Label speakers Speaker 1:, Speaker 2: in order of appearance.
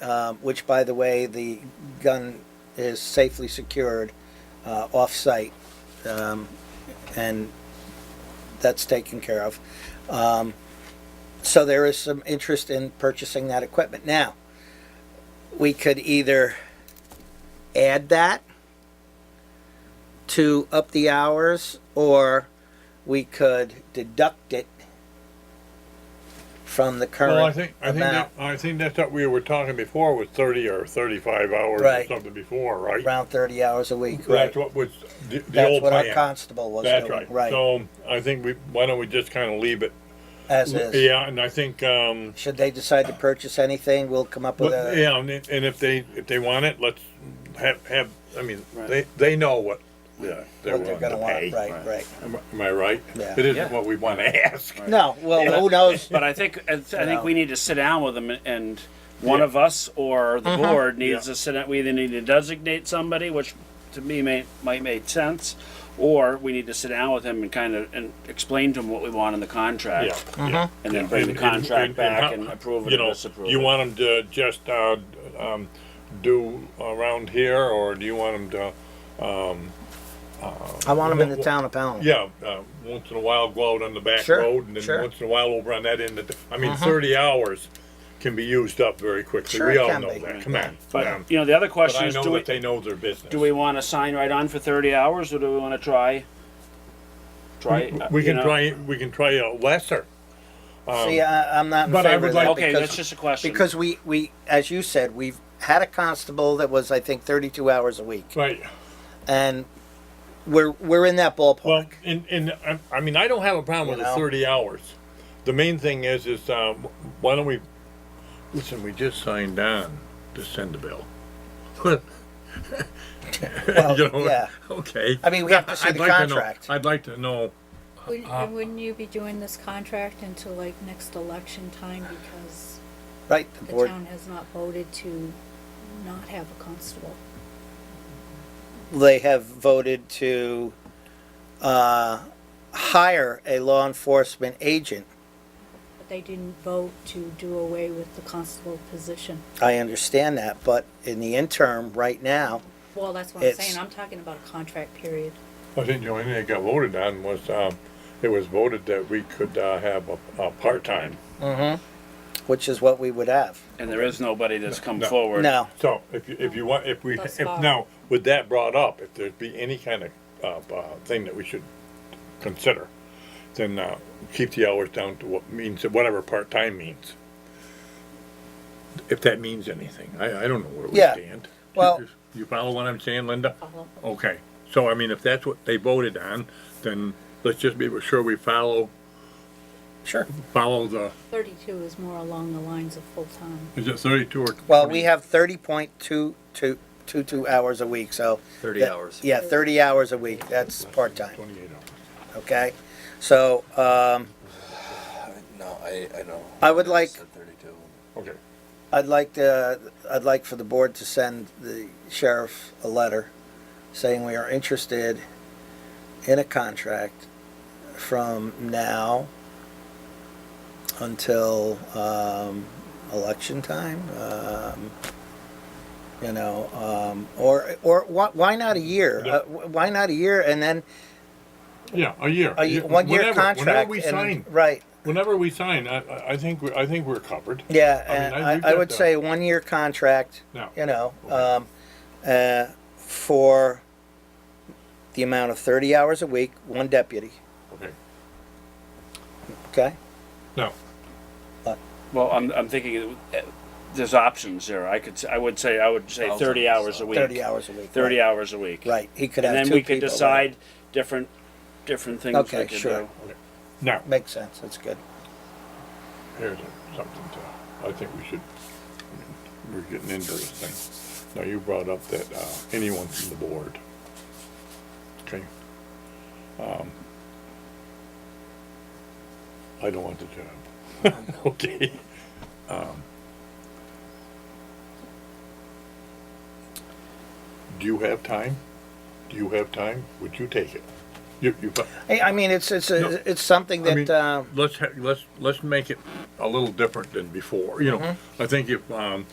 Speaker 1: um, which, by the way, the gun is safely secured uh, off-site, um, and that's taken care of. Um, So there is some interest in purchasing that equipment. Now, we could either add that to up the hours, or we could deduct it from the current
Speaker 2: Well, I think, I think, that-
Speaker 1: amount.
Speaker 2: I think that's what we were talking before was thirty or thirty-five hours or
Speaker 1: Right.
Speaker 2: something before, right?
Speaker 1: around 30 hours a week, right?
Speaker 2: That's what was the, the
Speaker 1: That's
Speaker 2: old
Speaker 1: what our
Speaker 2: plan.
Speaker 1: constable was
Speaker 2: That's
Speaker 1: doing,
Speaker 2: right.
Speaker 1: right,
Speaker 2: So I think we, why don't we just kind of leave it?
Speaker 1: as is.
Speaker 2: Yeah, and I think, um,
Speaker 1: Should they decide to purchase anything, we'll come up with
Speaker 2: but-
Speaker 1: a,
Speaker 2: yeah, and if and if they, if they want it, let's have, have, I mean,
Speaker 3: Right.
Speaker 2: they, they know what, yeah, they're
Speaker 1: what they're
Speaker 2: willing to
Speaker 1: gonna want,
Speaker 2: pay.
Speaker 1: right,
Speaker 3: right.
Speaker 1: right.
Speaker 2: Am I- am I right?
Speaker 1: Yeah.
Speaker 2: It
Speaker 3: Yeah.
Speaker 2: isn't what we want to ask.
Speaker 1: No, well, who knows?
Speaker 3: But I think I, th- I think
Speaker 1: No.
Speaker 3: we need to sit down with them, and one of us or the board needs
Speaker 2: Yeah.
Speaker 3: to sit down. We either need to designate somebody, which to me may, might make sense, or we need to sit down with him and kind of and explain to him what we want in the contract,
Speaker 2: Yeah, yeah.
Speaker 3: and then bring the contract
Speaker 2: and-
Speaker 3: back
Speaker 2: how-
Speaker 3: and, approve it
Speaker 2: you
Speaker 3: or
Speaker 2: know,
Speaker 3: disapprove.
Speaker 2: You
Speaker 3: it.
Speaker 2: want them to just, uh, um, do around here, or do you want them to, um,
Speaker 1: I want them in the town of Pownell.
Speaker 2: yeah, uh, once in a while go out on the back
Speaker 1: Sure,
Speaker 2: road, and
Speaker 1: sure. Uh-huh.
Speaker 2: then once in a while over on that end of, the- I mean, thirty hours can be used up very quickly,
Speaker 1: Sure
Speaker 2: we
Speaker 1: it
Speaker 2: all
Speaker 1: can
Speaker 2: know
Speaker 1: be.
Speaker 2: that, come on.
Speaker 3: Mm-hmm. but
Speaker 2: um,
Speaker 3: you know, the other
Speaker 2: But
Speaker 3: question
Speaker 2: I
Speaker 3: is:
Speaker 2: know
Speaker 3: Do we
Speaker 2: that they know their business.
Speaker 3: do we want to sign right on for thirty hours, or do we want to try? Try. uh,
Speaker 2: We
Speaker 3: you
Speaker 2: can
Speaker 3: know-
Speaker 2: try, we can try a lesser,
Speaker 1: See, I, I'm not in
Speaker 2: But I
Speaker 1: favor
Speaker 2: would
Speaker 1: of that
Speaker 2: like-
Speaker 3: Okay, that's
Speaker 1: because,
Speaker 3: just a question.
Speaker 1: because we, we, as you said, we've had a constable that was, I think, 32 hours a week.
Speaker 2: right,
Speaker 1: And we're, we're in that ballpark.
Speaker 2: Well, and, and I, I mean, I don't have a problem
Speaker 1: You
Speaker 2: with the
Speaker 1: know?
Speaker 2: thirty hours. The main thing is, is uh, why don't we? Listen, we just signed on to send the bill. You know,
Speaker 1: yeah.
Speaker 2: Okay.
Speaker 1: I mean, we have to see
Speaker 2: I'd
Speaker 1: the
Speaker 2: like to know-
Speaker 1: contract.
Speaker 2: I'd like to know.
Speaker 4: Wouldn't,
Speaker 1: Uh,
Speaker 4: and wouldn't you be doing this contract until like next election time because
Speaker 1: Right, the
Speaker 4: the
Speaker 1: board,
Speaker 4: town has not voted to not have a constable?
Speaker 1: they have voted to, uh, hire a law enforcement agent.
Speaker 4: But they didn't vote to do away with the constable position.
Speaker 1: I understand that, but in the interim, right now,
Speaker 4: Well, that's what I'm
Speaker 1: It's-
Speaker 4: saying. I'm talking about a contract period.
Speaker 2: I think the only thing that got voted on was um, it was voted that we could uh, have a, a part time.
Speaker 1: which is what we would have.
Speaker 3: And there is nobody that's come
Speaker 2: No.
Speaker 3: forward.
Speaker 1: No,
Speaker 2: So if you, if you want, if we,
Speaker 4: Thus
Speaker 2: if
Speaker 4: far.
Speaker 2: now, with that brought up, if there'd be any kind of, uh, uh, thing that we should consider, then, uh, keep the hours down to what means, whatever part-time means. If that means anything, I, I don't know where we
Speaker 1: Yeah.
Speaker 2: stand.
Speaker 1: Well-
Speaker 2: You follow what I'm saying, Linda?
Speaker 4: Follow.
Speaker 2: Okay, so I mean, if that's what they voted on, then let's just be sure we follow,
Speaker 1: sure.
Speaker 2: follow the,
Speaker 4: Thirty-two is more along the lines of full-time.
Speaker 2: is it thirty-two or?
Speaker 1: Well, we have thirty point two two two two hours a week, so.
Speaker 5: 30
Speaker 1: that-
Speaker 5: hours.
Speaker 1: Yeah, thirty hours a week, that's part-time,
Speaker 2: Twenty-eight hours.
Speaker 1: okay? So, um,
Speaker 5: No, I, I know.
Speaker 1: I would like-
Speaker 5: Said 32.
Speaker 2: Okay,
Speaker 1: I'd like to, I'd like for the board to send the sheriff a letter saying we are interested in a contract from now until, um, election time, um, you know, um, or, or why, why not a year?
Speaker 2: Yeah.
Speaker 1: Uh, wh- Why not a year and then
Speaker 2: yeah, a year.
Speaker 1: a ye- one-year
Speaker 2: Uh, Whenever- whenever
Speaker 1: contract?
Speaker 2: we
Speaker 1: and-
Speaker 2: sign.
Speaker 1: Right,
Speaker 2: Whenever we sign, I, I- I think, we- I think we're covered.
Speaker 1: yeah,
Speaker 2: I mean,
Speaker 1: and
Speaker 2: I- we've
Speaker 1: I, I
Speaker 2: got
Speaker 1: would
Speaker 2: the-
Speaker 1: say one-year contract.
Speaker 2: Now,
Speaker 1: you know, um, uh, for the amount of thirty hours a week, one deputy,
Speaker 2: okay,
Speaker 1: okay?
Speaker 2: now,
Speaker 3: Well, I'm, I'm thinking uh, there's options there. I could, s- I would say, I would say
Speaker 5: Thousand,
Speaker 3: thirty hours a
Speaker 5: so-
Speaker 3: week.
Speaker 1: Thirty hours a week.
Speaker 3: Thirty
Speaker 1: right.
Speaker 3: hours a week.
Speaker 1: Right, he could have
Speaker 3: And
Speaker 1: two
Speaker 3: then we could
Speaker 1: people, right?
Speaker 3: decide different, different things
Speaker 1: Okay,
Speaker 3: we could
Speaker 1: sure.
Speaker 3: do.
Speaker 2: now,
Speaker 1: Makes sense, that's good.
Speaker 2: here's a- something to, I think we should, we're getting into this thing. Now, you brought up that, uh, anyone from the board. Okay. Um, I don't want the job. Okay. Um, Do you have time? Do you have time? Would you take it? You, you.
Speaker 1: Hey, I mean, it's, it's,
Speaker 2: No.
Speaker 1: a- it's something
Speaker 2: I
Speaker 1: that,
Speaker 2: mean,
Speaker 1: um,
Speaker 2: let's ha- let's let's make it a little different than before. You know, I think if um,